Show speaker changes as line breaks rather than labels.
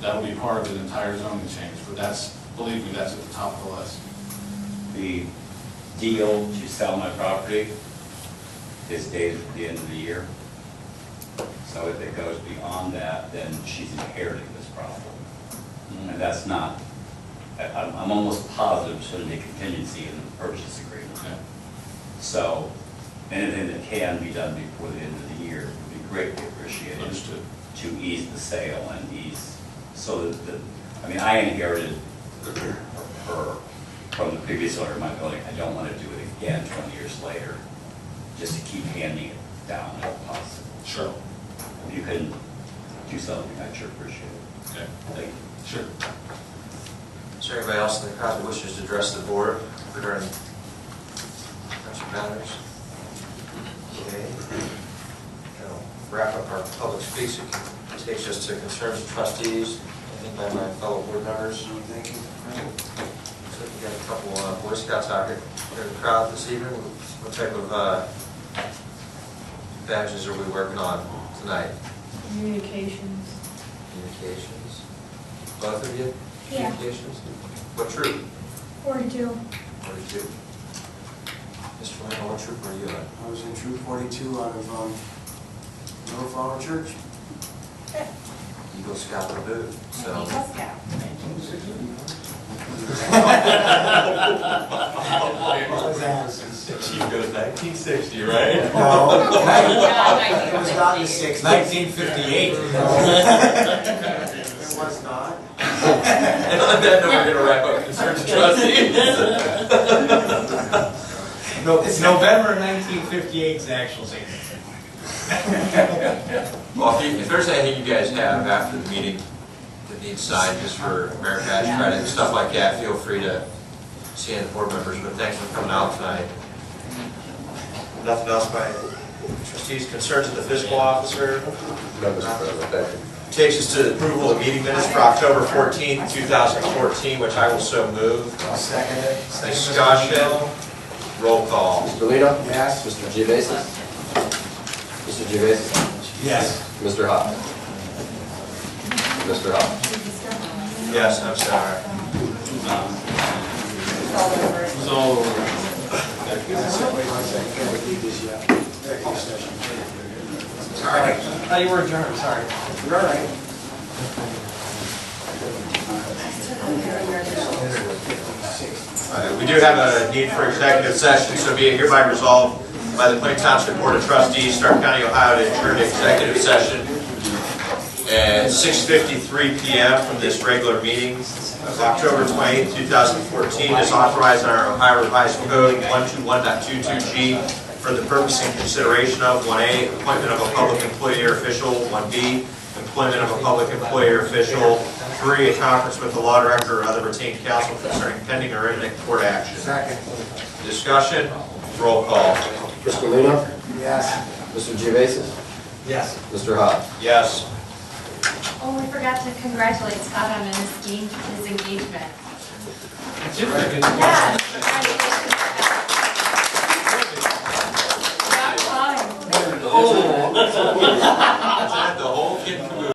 That'll be part of an entire zoning change, but that's, believe me, that's at the top of the list.
The deal to sell my property is dated at the end of the year. So if it goes beyond that, then she's inheriting this problem. And that's not, I- I'm, I'm almost positive it's going to be a contingency in the purchase agreement.
Okay.
So anything that can be done before the end of the year would be greatly appreciated
Understood.
to ease the sale and ease, so that, the- I mean, I inherited her from the previous owner of my building. I don't want to do it again 20 years later, just to keep handing it down if possible.
Sure.
If you can do something, I'd sure appreciate it.
Okay,
Thank you.
sure.
Is there anybody else in the crowd that wishes to address the board regarding such matters? Okay. That'll Wrap up our public speaks. It takes us to concerns of trustees, I think by my fellow board members. Thank you. So we got a couple uh, Boy Scouts out here in the crowd this evening. What type of uh, badges are we working on tonight?
Communications.
Communications? Both of you?
Yeah.
Communications? What troop?
Forty-two.
Forty-two. Mr. Lane, what troop were you uh, in?
I was in Troop 42 out of um, Little Flower Church.
Eagle Scout and Boot, so. You go nineteen sixty, right?
No. It was not the 60s.
Nineteen fifty-eight.
It was not.
And on that note, we're gonna wrap up concern to trustees.
No, it's November nineteen fifty-eight's actual date.
Well, if you- if there's anything you guys have after the meeting that needs signed, just for Americash credit and stuff like that, feel free to see any of the board members, but thanks for coming out tonight. Nothing else by trustees, concerns of the fiscal officer? Takes us to the approval of meeting minutes for October 14, 2014, which I will so move.
I'll second it. Second, Mr.
Discussion,
Lino.
roll call.
Mr. Lino?
Yes.
Mr. Gevasis? Mr. Gevasis?
Yes.
Mr. Hop? Mr. Hop?
Yes, I'm sorry.
It's all over.
Wait one second, can we leave this yet? Executive session.
Oh, you were adjourned, sorry.
You're all right.
Uh, We do have a need for executive session, so be it hereby resolved by the Plain Township Board of Trustees, Stark County, Ohio, to adjourn to executive session at 6:53 PM from this regular meeting of October 28, 2014, as authorized in our Ohio Revised Code 121.22G for the purpose and consideration of 1A, appointment of a public employee or official, 1B, employment of a public employee or official, 3, a conference with the law director or other retained counsel concerning pending or imminent court action.
Second.
Discussion, roll call.
Mr. Lino?
Yes.
Mr. Gevasis?
Yes.
Mr. Hop?
Yes.
Oh, we forgot to congratulate Scott on his game, his engagement. Yes. congratulations, Scott.